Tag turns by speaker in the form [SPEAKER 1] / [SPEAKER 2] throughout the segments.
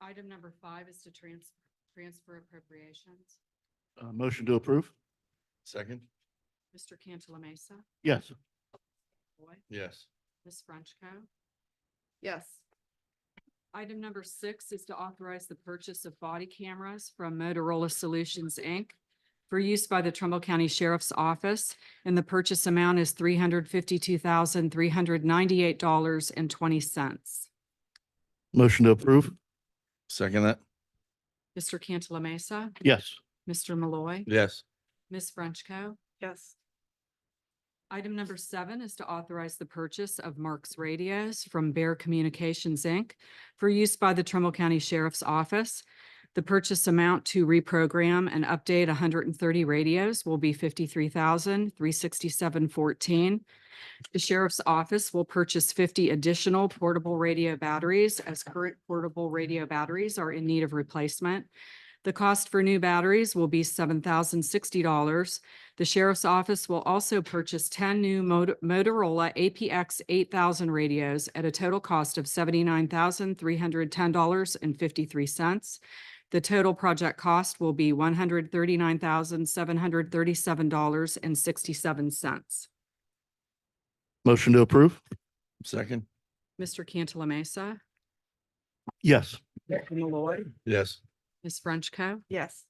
[SPEAKER 1] Item number five is to trans, transfer appropriations.
[SPEAKER 2] Uh, motion to approve?
[SPEAKER 3] Second?
[SPEAKER 1] Mr. Cantala Mesa,
[SPEAKER 2] Yes.
[SPEAKER 1] Boyd,
[SPEAKER 3] Yes.
[SPEAKER 1] Ms. Frenchco.
[SPEAKER 4] yes,
[SPEAKER 1] Item number six is to authorize the purchase of body cameras from Motorola Solutions, Inc. for use by the Trumbull County Sheriff's Office, and the purchase amount is three hundred fifty-two thousand, three hundred ninety-eight dollars and twenty cents.
[SPEAKER 2] Motion to approve?
[SPEAKER 3] Second that?
[SPEAKER 1] Mr. Cantala Mesa,
[SPEAKER 2] Yes.
[SPEAKER 1] Mr. Malloy,
[SPEAKER 3] Yes.
[SPEAKER 1] Ms. Frenchco.
[SPEAKER 4] yes,
[SPEAKER 1] Item number seven is to authorize the purchase of Mark's radios from Bear Communications, Inc. for use by the Trumbull County Sheriff's Office. The purchase amount to reprogram and update hundred and thirty radios will be fifty-three thousand, three sixty-seven fourteen. The Sheriff's Office will purchase fifty additional portable radio batteries as current portable radio batteries are in need of replacement. The cost for new batteries will be seven thousand sixty dollars. The sheriff's office will also purchase ten new Mot- Motorola APX eight thousand radios at a total cost of seventy-nine thousand three hundred ten dollars and fifty-three cents. The total project cost will be one hundred thirty-nine thousand seven hundred thirty-seven dollars and sixty-seven cents.
[SPEAKER 2] Motion to approve?
[SPEAKER 3] Second?
[SPEAKER 1] Mr. Cantala Mesa,
[SPEAKER 2] Yes.
[SPEAKER 1] Mr. Malloy,
[SPEAKER 3] Yes.
[SPEAKER 1] Ms. Frenchco.
[SPEAKER 4] yes,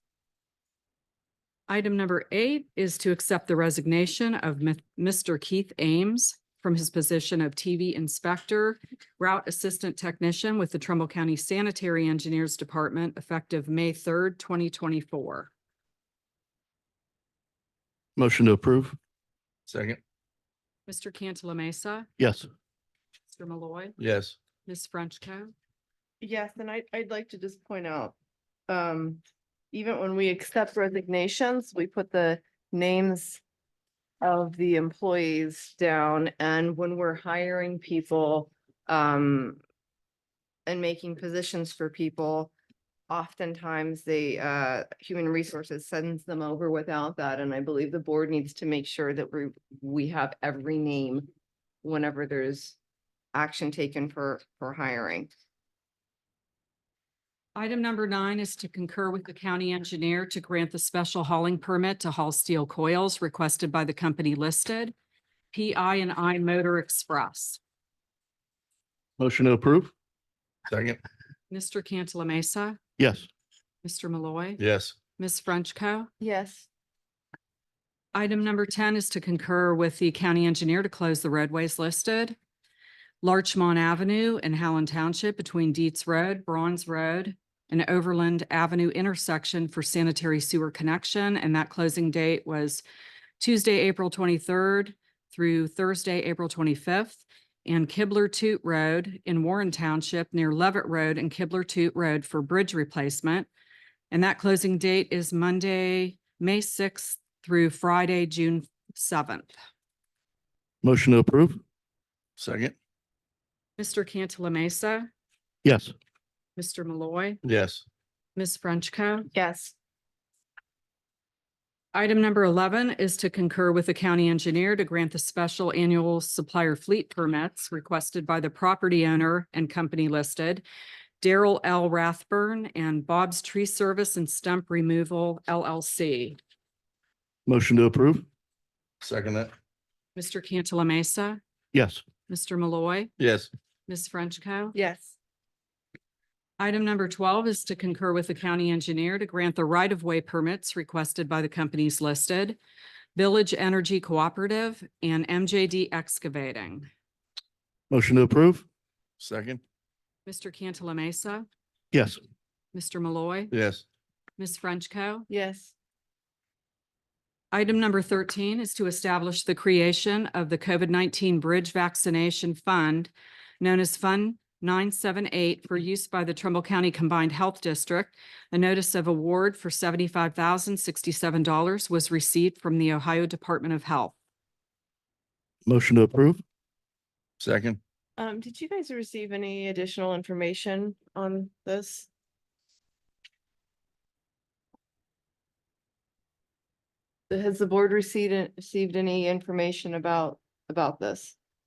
[SPEAKER 1] Item number eight is to accept the resignation of Mi- Mr. Keith Ames from his position of TV Inspector, Route Assistant Technician with the Trumbull County Sanitary Engineers Department effective May third, twenty twenty-four.
[SPEAKER 2] Motion to approve?
[SPEAKER 3] Second?
[SPEAKER 1] Mr. Cantala Mesa,
[SPEAKER 2] Yes.
[SPEAKER 1] Mr. Malloy,
[SPEAKER 3] Yes.
[SPEAKER 1] Ms. Frenchco.
[SPEAKER 4] yes, and I, I'd like to just point out, um, even when we accept resignations, we put the names of the employees down, and when we're hiring people, um, and making positions for people, oftentimes the uh, human resources sends them over without that, and I believe the board needs to make sure that we, we have every name whenever there's action taken for, for hiring.
[SPEAKER 1] Item number nine is to concur with the county engineer to grant the special hauling permit to haul steel coils requested by the company listed, PI and I Motor Express.
[SPEAKER 2] Motion to approve?
[SPEAKER 3] Second?
[SPEAKER 1] Mr. Cantala Mesa,
[SPEAKER 2] Yes.
[SPEAKER 1] Mr. Malloy.
[SPEAKER 3] Yes.
[SPEAKER 1] Ms. Frenchco.
[SPEAKER 4] Yes,
[SPEAKER 1] Item number ten is to concur with the county engineer to close the roadways listed. Larchmont Avenue in Howland Township between Dietz Road, Bronze Road, and Overland Avenue intersection for sanitary sewer connection, and that closing date was Tuesday, April twenty-third through Thursday, April twenty-fifth, and Kibler Toot Road in Warren Township near Levitt Road and Kibler Toot Road for bridge replacement. And that closing date is Monday, May sixth through Friday, June seventh.
[SPEAKER 2] Motion to approve?
[SPEAKER 3] Second?
[SPEAKER 1] Mr. Cantala Mesa,
[SPEAKER 2] Yes.
[SPEAKER 1] Mr. Malloy,
[SPEAKER 3] Yes.
[SPEAKER 1] Ms. Frenchco.
[SPEAKER 4] yes,
[SPEAKER 1] Item number eleven is to concur with the county engineer to grant the special annual supplier fleet permits requested by the property owner and company listed, Daryl L. Rathburn and Bob's Tree Service and Stump Removal LLC.
[SPEAKER 2] Motion to approve?
[SPEAKER 3] Second that?
[SPEAKER 1] Mr. Cantala Mesa,
[SPEAKER 2] Yes.
[SPEAKER 1] Mr. Malloy,
[SPEAKER 3] Yes.
[SPEAKER 1] Ms. Frenchco.
[SPEAKER 4] yes,
[SPEAKER 1] Item number twelve is to concur with the county engineer to grant the right-of-way permits requested by the companies listed, Village Energy Cooperative and MJD Excavating.
[SPEAKER 2] Motion to approve?
[SPEAKER 3] Second?
[SPEAKER 1] Mr. Cantala Mesa,
[SPEAKER 2] Yes.
[SPEAKER 1] Mr. Malloy,
[SPEAKER 3] Yes.
[SPEAKER 1] Ms. Frenchco.
[SPEAKER 4] yes,
[SPEAKER 1] Item number thirteen is to establish the creation of the COVID nineteen Bridge Vaccination Fund, known as Fund nine seven eight, for use by the Trumbull County Combined Health District. A notice of award for seventy-five thousand sixty-seven dollars was received from the Ohio Department of Health.
[SPEAKER 2] Motion to approve?
[SPEAKER 3] Second?
[SPEAKER 4] Um, did you guys receive any additional information on this? Has the board received, received any information about, about this?